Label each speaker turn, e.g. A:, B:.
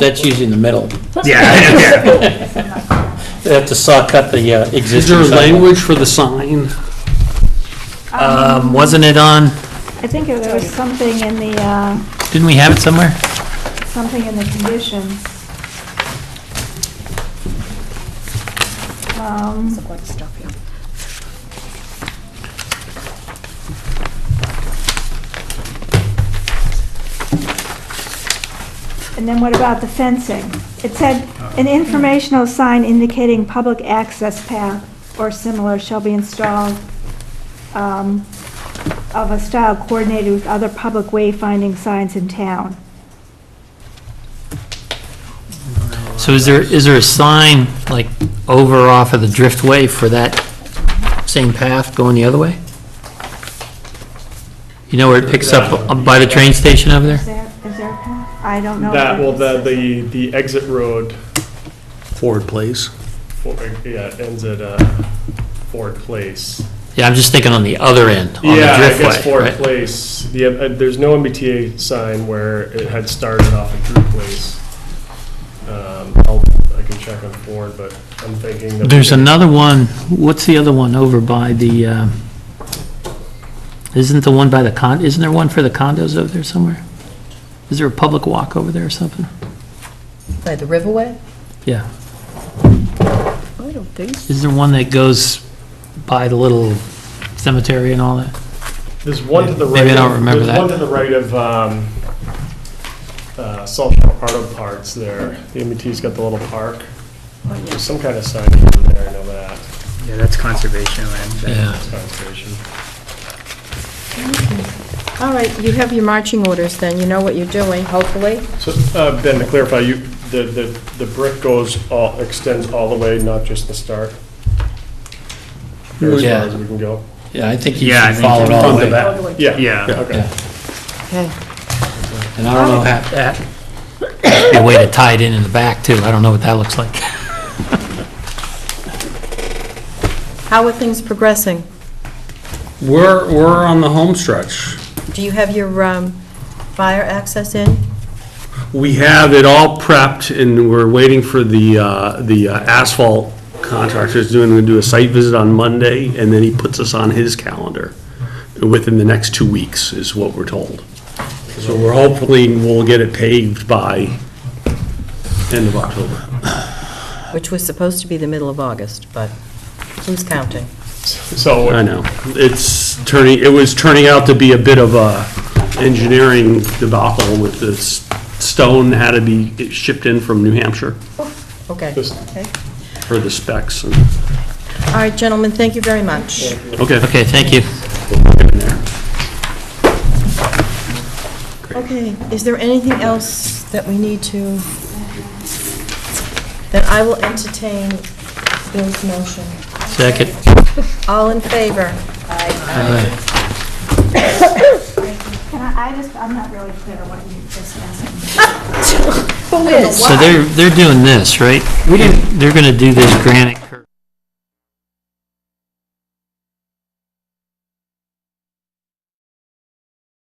A: That's usually in the middle.
B: Yeah, yeah.
A: They have to saw cut the uh,
C: Is
A: existing.
C: there
A: sidewalk.
C: language for the sign?
A: Um, wasn't it on,
D: I think there was something in the, uh,
A: didn't we have it somewhere?
D: something in the conditions. Um, And then what about the fencing? It said, "An informational sign indicating public access path or similar shall be installed um, of a style coordinated with other public wayfinding signs in town."
A: So is there, is there a sign, like, over off of the driftway for that same path going the other way? You know where it picks up by the train station over
D: Is
A: there?
D: there, is there a path? I don't know.
B: That,
D: if
B: well, the,
D: there is.
B: the, the exit road,
C: Forward, please.
B: for- yeah, ends at, uh, Ford Place.
A: Yeah, I'm just thinking on the other end, on the
B: Yeah, I guess
A: driftway,
B: Ford
A: right?
B: Place, the, uh, there's no MBTA sign where it had started off at Drew Place. Um, I'll, I can check on Ford, but I'm thinking that.
A: There's another one, what's the other one over by the, uh, isn't the one by the con, isn't there one for the condos over there somewhere? Is there a public walk over there or something?
E: By the Riverway?
A: Yeah.
E: I don't think so.
A: Is there one that goes by the little cemetery and all that?
B: There's one to the right.
A: Maybe I don't
B: of-
A: remember that.
B: There's one to the right of, um, uh, South Shore Auto Parts there. The MBT's got the little park. There's some kind of sign over there, I know that.
F: Yeah, that's conservation land.
A: Yeah.
B: It's conservation.
E: All right, you have your marching orders then, you know what you're doing, hopefully.
B: So, uh, Ben, to clarify, you, the, the, the brick goes all, extends all the way, not just the start? Or as
A: Yeah.
B: far as we can go?
A: Yeah, I think
F: Yeah, I think
A: it all the way.
B: That- Yeah.
F: Yeah.
B: Okay.
E: Okay.
A: And I don't know how, that, be a way to tie it in in the back too. I don't know what that looks like.
E: How are things progressing?
C: We're, we're on the home stretch.
E: Do you have your um, fire access in?
C: We have it all prepped, and we're waiting for the, uh, the uh, asphalt contractor's doing, gonna do a site visit on Monday, and then he puts us on his calendar within the next two weeks, is what we're told. So we're hopefully, we'll get it paved by end of October.
E: Which was supposed to be the middle of August, but who's counting?
C: I
B: So,
C: know, it's turning, it was turning out to be a bit of a engineering debacle with this stone had to be shipped in from New Hampshire
E: Okay.
B: just,
C: for the specs, and,
E: All right, gentlemen, thank you very much.
C: okay.
A: Okay, thank you.
E: Okay, is there anything else that we need to, that I will entertain Bill's motion?
A: Second.
E: All in favor?
D: Can I, I just, I'm not really clear what you just asked.
E: Who is?
A: So they're, they're doing this, right? We didn't. They're gonna do this granite